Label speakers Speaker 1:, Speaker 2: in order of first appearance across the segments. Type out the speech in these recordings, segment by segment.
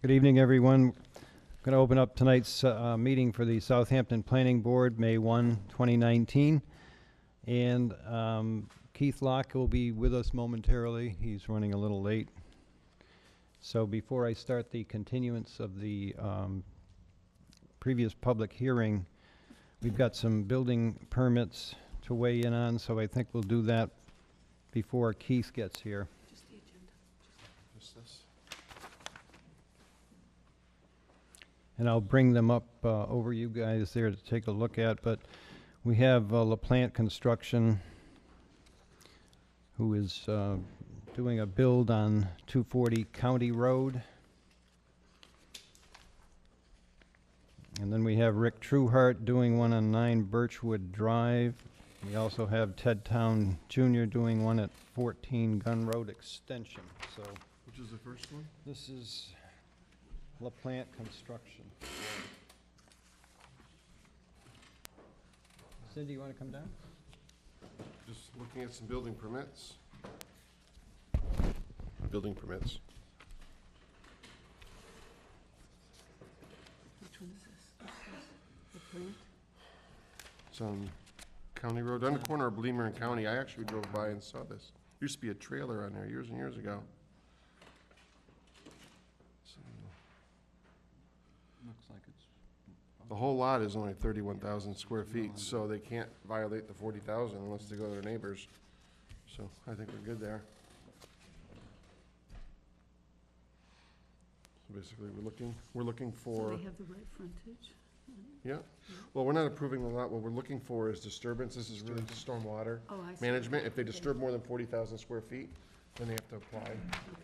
Speaker 1: Good evening, everyone. I'm Going to open up tonight's uh, meeting for the Southampton Planning Board, May 1, 2019. And um, Keith Locke will be with us momentarily. He's running a little late. So before I start the continuance of the um, previous public hearing, we've got some building permits to weigh in on, so I think we'll do that before Keith gets here. and I'll bring them up uh, over you guys there to take a look at, but we have uh, LaPlante Construction, who is uh, doing a build on 240 County Road. And then we have Rick Trueheart doing one on 9 Birchwood Drive. We also have Ted Town Jr. doing one at 14 Gun Road Extension, so
Speaker 2: Which is the first one?
Speaker 1: this is LaPlante Construction. Cindy, you want to come down?
Speaker 2: Just looking at some building permits. Building permits.
Speaker 3: Which one is this? This is the plant?
Speaker 2: It's on County Road, on the corner of Bleemer and County. I actually drove by and saw this. Used to be a trailer on there years and years ago. So,
Speaker 4: Looks like it's,
Speaker 2: The whole lot is only thirty-one thousand square feet, so they can't violate the forty thousand unless they go to their neighbors. So I think we're good there. So Basically, we're looking, we're looking for.
Speaker 3: So they have the right frontage?
Speaker 2: Yeah, well, we're not approving the lot, what we're looking for is disturbance, this is really stormwater
Speaker 3: Oh, I see.
Speaker 2: management, if they disturb more than forty thousand square feet, then they have to apply,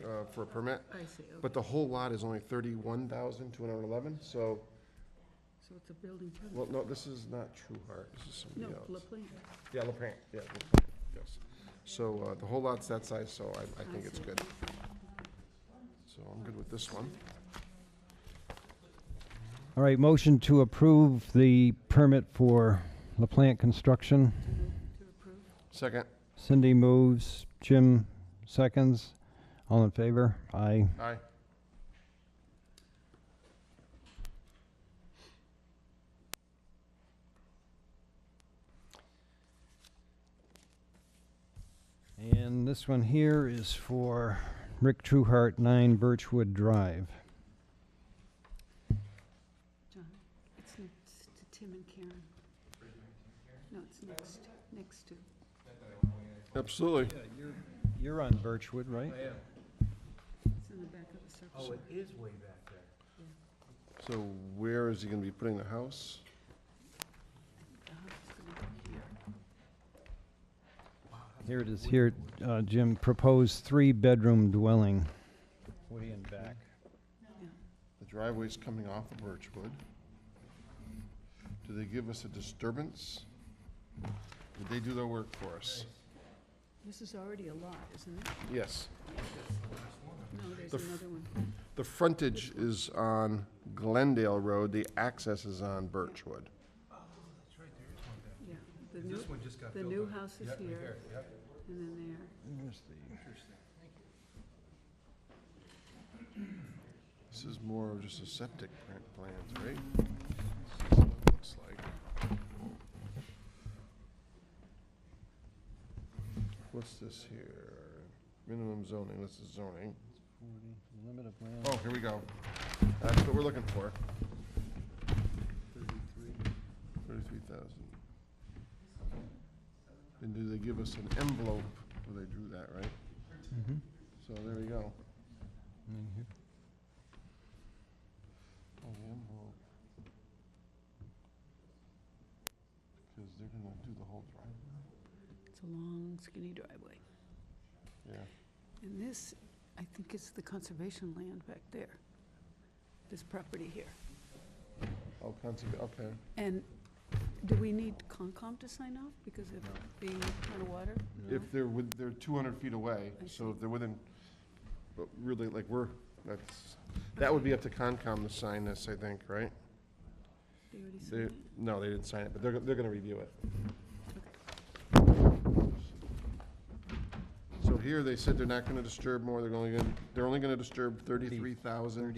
Speaker 2: uh, for a permit,
Speaker 3: I see, okay.
Speaker 2: but the whole lot is only thirty-one thousand two hundred and eleven, so,
Speaker 3: So it's a building permit?
Speaker 2: well, no, this is not True Heart, this is
Speaker 3: No,
Speaker 2: somebody
Speaker 3: La
Speaker 2: else.
Speaker 3: Plante.
Speaker 2: Yeah, La Plante, yeah, La Plante, yes, so, uh, the whole lot's that size, so I, I think it's
Speaker 3: see.
Speaker 2: good, so I'm good with this one.
Speaker 1: All right, motion to approve the permit for LaPlante Construction.
Speaker 3: To approve?
Speaker 2: Second,
Speaker 1: Cindy moves, Jim seconds. All in favor? Aye.
Speaker 2: aye,
Speaker 1: And this one here is for Rick Trueheart, 9 Birchwood Drive.
Speaker 3: John, it's next to Tim and Karen. No, it's next, next to.
Speaker 2: absolutely,
Speaker 1: You're on Birchwood, right?
Speaker 3: It's in the back of the circle.
Speaker 4: is way back there.
Speaker 2: so where is he gonna be putting the house?
Speaker 3: The house is Uh-huh, gonna be here.
Speaker 1: Here it is, here, uh, Jim, proposed three-bedroom dwelling. Way in back.
Speaker 2: The driveway's coming off of Birchwood. Do they give us a disturbance? Did they do their work for us?
Speaker 3: This is already a lot, isn't it?
Speaker 2: Yes.
Speaker 3: No, there's
Speaker 2: The f-
Speaker 3: another one.
Speaker 2: The frontage is on Glendale Road, the access is on Birchwood.
Speaker 3: Yeah. The new,
Speaker 4: This one just got
Speaker 3: the
Speaker 4: built
Speaker 3: new
Speaker 4: on.
Speaker 3: house is
Speaker 4: Yeah, right
Speaker 3: here
Speaker 4: there, yep.
Speaker 3: and then there.
Speaker 1: There's the-
Speaker 2: This is more of just a septic plant- plans, right? This is what it Looks like. What's this here? Minimum zoning, this is zoning.
Speaker 1: Limit of land.
Speaker 2: Oh, here we go. That's what we're looking for. Thirty-three thousand. And do they give us an envelope? Well, they drew that, right?
Speaker 1: Mhm.
Speaker 2: So there we go.
Speaker 1: And then here.
Speaker 2: Oh, the envelope. Because they're gonna do the whole drive.
Speaker 3: It's a long skinny driveway.
Speaker 2: Yeah.
Speaker 3: And this, I think is the conservation land back there, this property here.
Speaker 2: Oh, conserva- okay.
Speaker 3: And do we need Concom to sign off because of being on water?
Speaker 2: If they're with, they're two hundred feet away,
Speaker 3: I
Speaker 2: so
Speaker 3: see.
Speaker 2: if they're within, but really, like, we're, that's, that would be up to Concom to sign this, I think, right?
Speaker 3: They already signed
Speaker 2: They,
Speaker 3: it?
Speaker 2: no, they didn't sign it, but they're, they're gonna review it. So here, they said they're not gonna disturb more, they're only gonna, they're only gonna disturb thirty-three thousand